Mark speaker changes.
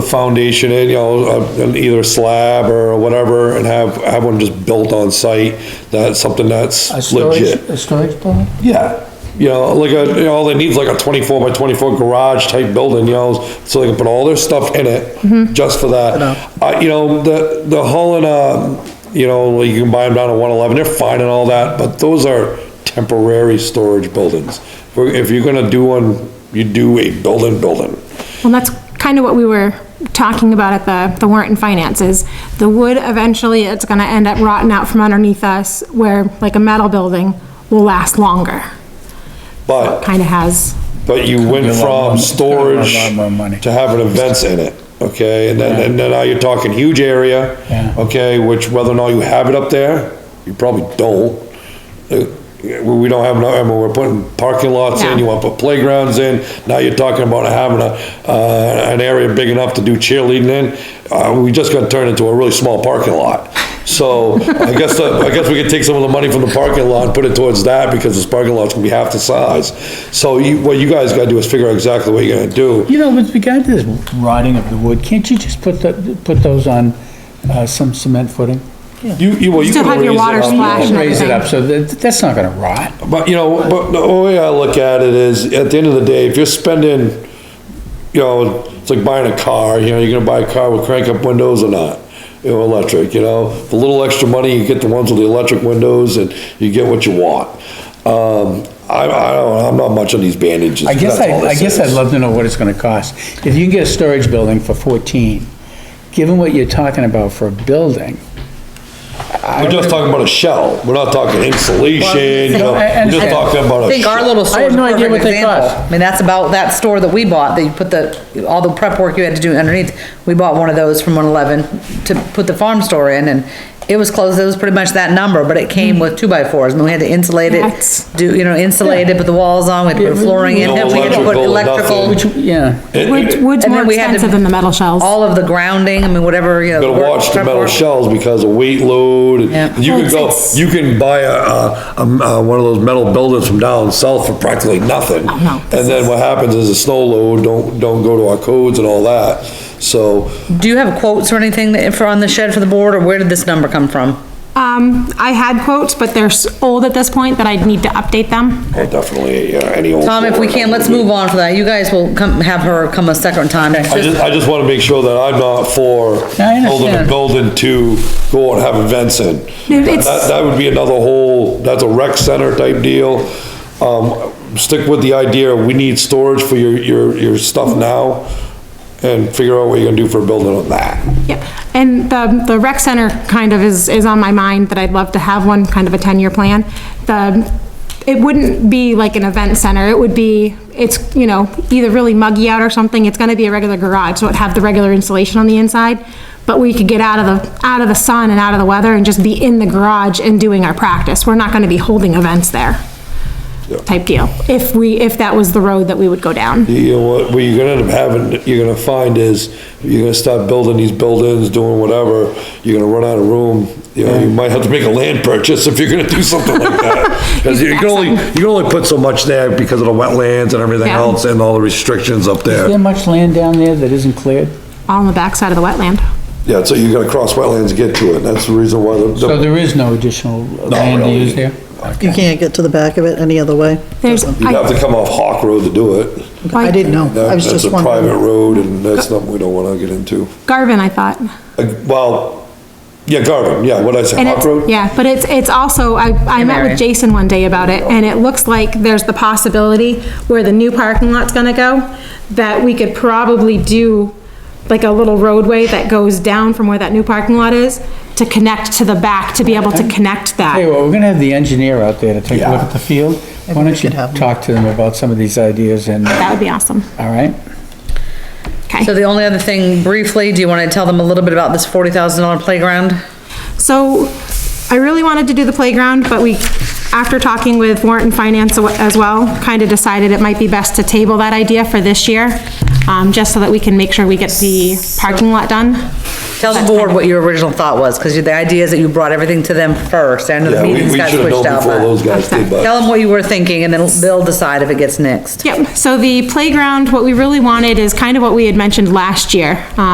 Speaker 1: foundation in, you know, uh, an either slab or whatever, and have, have one just built on site, that's something that's
Speaker 2: A storage,
Speaker 1: legit.
Speaker 2: a storage building?
Speaker 1: Yeah, you know, like a, you know, all they need is like a twenty-four by twenty-four garage type building, you know, so they can put all their stuff in
Speaker 2: Mm-hmm.
Speaker 1: it, just for that. Uh, you know, the, the hull and, uh, you know, you can buy them down at one eleven, they're fine and all that, but those are temporary storage buildings. If we're- If you're gonna do one, you do a building, building.
Speaker 3: Well, that's kind of what we were talking about at the, the warrant and finances. The wood, eventually, it's gonna end up rotting out from underneath us, where like a metal building will last longer.
Speaker 1: But,
Speaker 3: Kind of has,
Speaker 1: but you went
Speaker 2: be a lot
Speaker 1: from
Speaker 2: more- it's gonna be a lot
Speaker 1: storage
Speaker 2: more money.
Speaker 1: to having events in it, okay? And then,
Speaker 2: Yeah.
Speaker 1: and then now you're talking huge area,
Speaker 2: Yeah.
Speaker 1: okay, which whether or not you have it up there, you probably don't. Uh, We we don't have, no- I mean, we're putting parking lots in, you
Speaker 3: No.
Speaker 1: want to put playgrounds in, now you're talking about having a, uh, an area big enough to do cheerleading in. Uh, we just got turned into a really small parking lot. So I guess, the- I guess we could take some of the money from the parking lot and put it towards that because this parking lot's gonna be half the size. So you, what you guys gotta do is figure out exactly what you're gonna do.
Speaker 2: You know, with regard to this rotting of the wood, can't you just put the, put those on, uh, some cement footing?
Speaker 1: You, you, well, you
Speaker 3: Still
Speaker 1: could
Speaker 3: have your
Speaker 1: raise it
Speaker 3: water
Speaker 1: up.
Speaker 3: splash. Fashion
Speaker 2: Raise it
Speaker 3: everything.
Speaker 2: up, so that, that's not gonna rot.
Speaker 1: But, you know, but the way I look at it is, at the end of the day, if you're spending, you know, it's like buying a car, you know, you're gonna buy a car with crank-up windows or not, you know, electric, you know? The little extra money, you get the ones with the electric windows, and you get what you want. Um, I, I don't, I'm not much on these bandages.
Speaker 2: I guess
Speaker 1: that's all
Speaker 2: I, I
Speaker 1: this
Speaker 2: guess
Speaker 1: is.
Speaker 2: I'd love to know what it's gonna cost. If you can get a storage building for fourteen, given what you're talking about for a building.
Speaker 1: We're just talking about a shell, we're not talking insulation, you know,
Speaker 2: Well, I- I
Speaker 1: we're just
Speaker 2: understand.
Speaker 1: talking about
Speaker 4: I
Speaker 1: a
Speaker 4: think our
Speaker 1: shell.
Speaker 4: little store is a
Speaker 2: no idea
Speaker 4: perfect
Speaker 2: what they
Speaker 4: example.
Speaker 2: cost.
Speaker 4: I mean, that's about that store that we bought, that you put the, all the prep work you had to do underneath. We bought one of those from one eleven to put the farm store in and it was closed, it was pretty much that number, but it came with two by fours and we had to insulate
Speaker 3: Hmm. That's-
Speaker 4: it, do, you know, insulate it, put the walls on, we had to put flooring in,
Speaker 1: No
Speaker 4: it, we had to put
Speaker 1: electrical,
Speaker 4: electrical.
Speaker 1: nothing.
Speaker 2: Which, yeah,
Speaker 1: It-
Speaker 3: wood's,
Speaker 1: it-
Speaker 3: wood's
Speaker 4: And
Speaker 3: more
Speaker 4: then we had to-
Speaker 3: expensive than the metal shells.
Speaker 4: All of the grounding, I mean, whatever, you know.
Speaker 1: gotta
Speaker 4: work-
Speaker 1: watch the
Speaker 4: prep
Speaker 1: metal
Speaker 4: work.
Speaker 1: shells because of weight load,
Speaker 4: Yeah.
Speaker 1: and you can
Speaker 3: Well,
Speaker 1: go,
Speaker 3: it's-
Speaker 1: you can buy a, a, um, uh, one of those metal buildings from down south for practically nothing.
Speaker 3: Oh, no.
Speaker 1: And then what happens is the snow load don't, don't go to our codes and all that, so,
Speaker 4: Do you have quotes or anything that, for, on the shed for the board or where did this number come from?
Speaker 3: Um, I had quotes, but they're s- old at this point that I'd need to update them.
Speaker 1: oh, definitely, yeah, any old.
Speaker 4: Tom, if we can, let's move on for that. You guys will come, have her come a second time.
Speaker 1: I just, I just wanna make sure that I'm not for
Speaker 2: I understand.
Speaker 1: building a building to go and have events in.
Speaker 3: No,
Speaker 1: That,
Speaker 3: it's-
Speaker 1: that would be another whole, that's a rec center type deal. Um, stick with the idea, we need storage for your, your, your stuff now and figure out what you're gonna do for a building on that.
Speaker 3: Yep, and the, the rec center kind of is, is on my mind, that I'd love to have one, kind of a ten-year plan. The, it wouldn't be like an event center, it would be, it's, you know, either really muggy out or something, it's gonna be a regular garage, so it'd have the regular insulation on the inside, but we could get out of the, out of the sun and out of the weather and just be in the garage and doing our practice, we're not gonna be holding events there. Type deal, if we, if that was the road that we would go down.
Speaker 1: You know, what, what you're gonna end up having, you're gonna find is, you're gonna start building these buildings, doing whatever, you're gonna run out of room. You know, you might have to make a land purchase if you're gonna do something like that. Cause you can only, you can only put so much there because of the wetlands and everything
Speaker 3: Yeah.
Speaker 1: else and all the restrictions up
Speaker 2: is there
Speaker 1: there.
Speaker 2: much land down there that isn't cleared?
Speaker 3: all on the backside of the wetland.
Speaker 1: Yeah, so you gotta cross wetlands to get to it, that's the reason why the-
Speaker 2: So
Speaker 1: the,
Speaker 2: there is no additional land to
Speaker 1: really.
Speaker 2: use there?
Speaker 5: You can't get to the back of it any other way?
Speaker 3: There's,
Speaker 1: you'd have
Speaker 3: I,
Speaker 1: to come off Hawk Road to do it.
Speaker 5: I didn't know. I was
Speaker 1: That's
Speaker 5: just
Speaker 1: a private
Speaker 5: wondering.
Speaker 1: road and that's something we don't wanna get into.
Speaker 3: Garvin, I thought.
Speaker 1: Uh, Well, yeah, Garvin, yeah, what'd I say,
Speaker 3: And
Speaker 1: Hawk
Speaker 3: it's,
Speaker 1: Road?
Speaker 3: yeah, but it's, it's also, I, I met
Speaker 4: area.
Speaker 3: with Jason one day about it, and it looks like there's the possibility where the new parking lot's gonna go, that we could probably do like a little roadway that goes down from where that new parking lot is to connect to the back, to be able to connect
Speaker 2: Hey,
Speaker 3: that.
Speaker 2: well, we're gonna have the engineer out there to take a look at the field. Why
Speaker 5: we
Speaker 2: don't you
Speaker 5: should have-
Speaker 2: talk to them about some of these ideas and, all
Speaker 3: That would be awesome.
Speaker 2: right?
Speaker 4: So the only other thing briefly, do you want to tell them a little bit about this forty thousand dollar playground?
Speaker 3: So I really wanted to do the playground, but we, after talking with warrant and finance as well, kind of decided it might be best to table that idea for this year, um, just so that we can make sure we get the parking lot done.
Speaker 4: Tell the board what your original thought was, because the idea is that you brought everything to them first, and the
Speaker 1: Yeah, we, we
Speaker 4: meetings
Speaker 1: should
Speaker 4: got
Speaker 1: have known
Speaker 4: switched out.
Speaker 1: before those
Speaker 4: but-
Speaker 1: guys did, but.
Speaker 4: Tell them what you were thinking, and then they'll decide if it gets next.
Speaker 3: Yep, so the playground, what we really wanted is kind of what we had mentioned last year. Um,